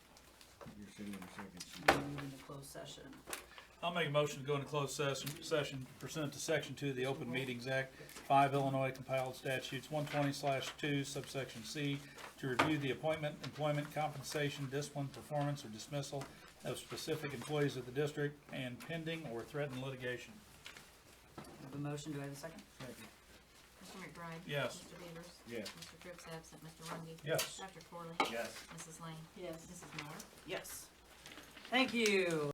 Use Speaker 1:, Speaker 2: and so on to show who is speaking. Speaker 1: Stay in second
Speaker 2: we
Speaker 1: sheet.
Speaker 2: move into closed session.
Speaker 3: I'll make a motion to go into closed session, session pursuant to section two of the Open Meetings Act, five Illinois compiled statutes, one twenty two subsection C, to review the appointment, employment, compensation, discipline, performance, or dismissal of specific employees of the district and pending or threatened litigation.
Speaker 2: I have a motion, do I have a second?
Speaker 4: Mr. McBride.
Speaker 3: Yes.
Speaker 4: Mr. Beavers.
Speaker 1: Yes.
Speaker 4: Mr. Cripps absent, Mr. Rungy.
Speaker 3: Yes.
Speaker 4: Dr. Corley.
Speaker 1: Yes.
Speaker 4: Mrs. Lane.
Speaker 2: Yes.
Speaker 4: Mrs. Miller.
Speaker 2: Yes. Thank you.